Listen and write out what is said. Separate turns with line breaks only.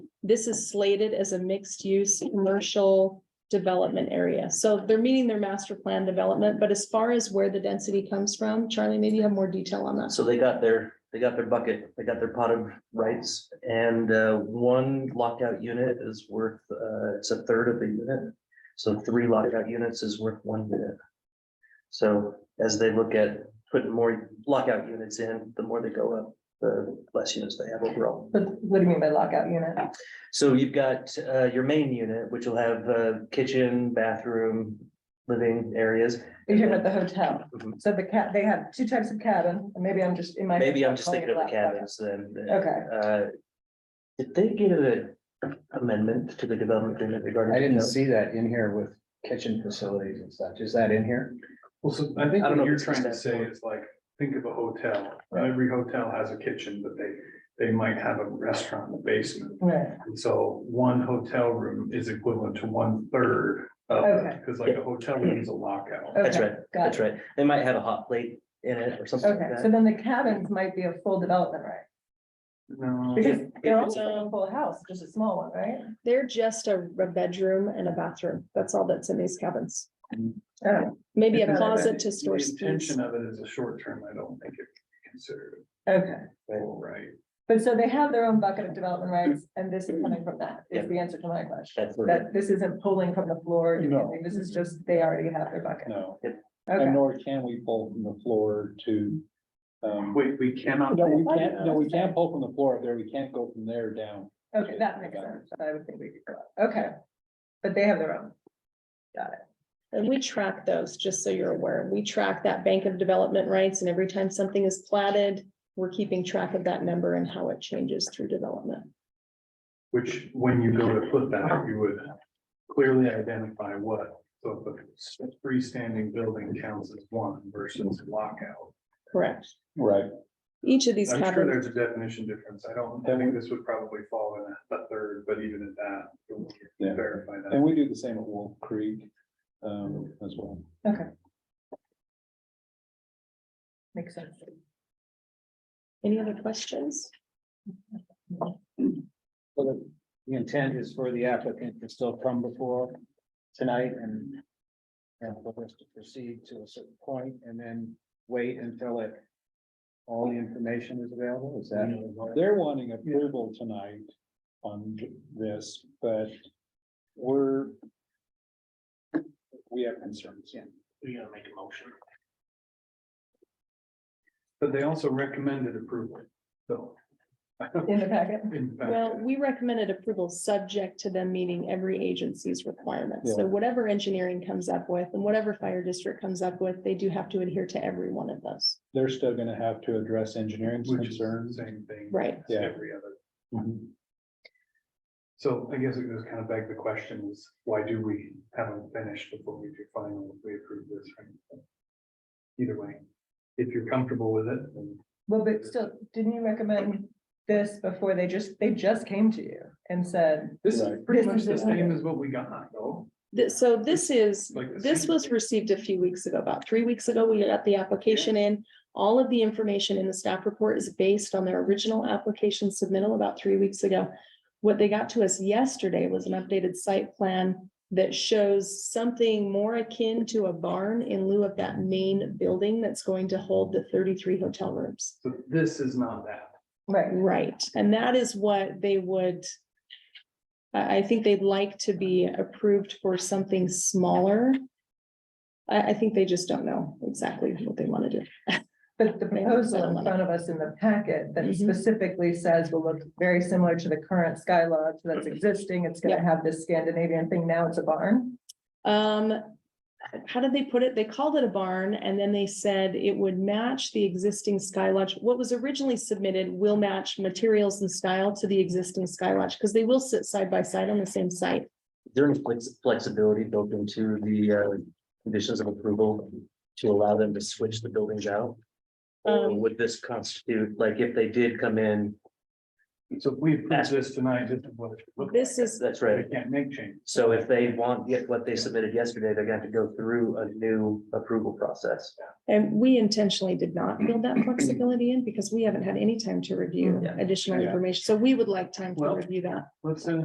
this is slated as a mixed-use commercial development area. So they're meeting their master plan development, but as far as where the density comes from, Charlie, maybe you have more detail on that.
So they got their, they got their bucket, they got their pot of rights and uh, one lockout unit is worth, uh, it's a third of the unit. So three lockout units is worth one unit. So as they look at putting more lockout units in, the more they go up, the less units they have overall.
But what do you mean by lockout unit?
So you've got uh, your main unit, which will have uh, kitchen, bathroom, living areas.
You're talking about the hotel.
Mhm.
So the cat, they have two types of cabin, and maybe I'm just in my. head,
Maybe I'm just
calling it
thinking of the
lockout.
cabins then.
Okay,
Uh, Did they get an amendment to the development agreement regarding?
I didn't see that in here with kitchen facilities and such. Is that in here?
Well, so I think
I don't know
what
if
you're
it's
trying to
just that
say
or-
is like, think of a hotel, every hotel has a kitchen, but they, they might have a restaurant in the basement.
right,
And so one hotel room is equivalent to one third of,
Okay.
because like a hotel room is a lockout.
That's
Okay,
right,
got
that's
it.
right. They might have a hot plate in it or something
Okay,
like
so
that.
then the cabins might be a full development, right?
Mm-hmm.
No,
Because they're
it's-
also a full house, just a small one, right?
They're just a a bedroom and a bathroom. That's all that's in these cabins. Um,
Oh,
Maybe a
Isn't that
closet
the
to store skis.
Intention of it is a short term, I don't think it can be considered
okay.
full right.
But so they have their own bucket of development rights, and this is coming from that, is the answer to my question.
That's right.
That this isn't pulling from the floor, or
No.
anything, this is just, they already have their bucket.
No,
Okay,
And nor can we pull from the floor to. um,
we, we cannot.
No, we can't, no, we can't pull from the floor up there. We can't go from there down.
okay, that makes sense. I would think we could go, out. okay. But they have their own.
And we track those, just so you're aware. We track that bank of development rights and every time something is platted, we're keeping track of that number and how it changes through development.
Which, when you go to put that, you would clearly identify what, so if a freestanding building counts as one versus lockout.
Correct.
Right.
Each of these
I'm sure
cabins,
there's a definition difference, I don't, I think this would probably fall in a third, but even at that, it would
Yeah.
verify
And
that.
we do the same at Wolf Creek um, as well.
Makes sense.
any other questions?
So the, the intent is for the applicant to still come before tonight and. And for us to proceed to a certain point and then wait until it. All the information is available, is that?
They're wanting approval tonight on this, but we're. We have concerns.
We gotta make a motion.
But they also recommended approval, so.
In the packet?
In fact,
Well, we recommended approval subject to them meeting every agency's requirements. So
Yeah.
whatever engineering comes up with and whatever fire district comes up with, they do have to adhere to every one of those.
They're still gonna have to address engineering's
Which is the
concerns.
same thing.
Right.
as
Yeah.
Every other. Mm-hmm.
Mhm.
So I guess it goes kind of back to the question is, why do we haven't finished before we do final, if we approve this? right? Either way, if you're comfortable with it, then
Well, but still, didn't you recommend this before they just, they just came to you and said,
this is
Right.
pretty
This
much
is
the
it.
same as what we got, though.
Th- so this is,
Like the
this
same.
was received a few weeks ago, about three weeks ago, we got the application in. All of the information in the staff report is based on their original application submittal about three weeks ago. What they got to us yesterday was an updated site plan that shows something more akin to a barn in lieu of that main building that's going to hold the thirty-three hotel rooms.
So this is not that.
right,
Right, and that is what they would. I, I think they'd like to be approved for something smaller. I, I think they just don't know exactly what they want to do.
but the proposal in front of us in the packet that
Mhm.
specifically says will look very similar to the current Sky Lodge that's existing, it's gonna
Yeah.
have this Scandinavian thing, now it's a barn.
Um, how did they put it? They called it a barn and then they said it would match the existing Sky Lodge. What was originally submitted will match materials and style to the existing Sky Lodge because they will sit side by side on the same site.
There is flex- flexibility built into the uh, conditions of approval to allow them to switch the buildings out? Or
Um,
would this constitute, like, if they did come in,
So if we approve this tonight, this is what it should look
This is,
that's
like.
right.
They can't make change.
So if they want, yet what they submitted yesterday, they're going to go through a new approval process.
And we intentionally did not build that flexibility in because we haven't had any time to review
Yeah.
additional
Yeah.
information. So we would like time to
Well-
review that.
Let's send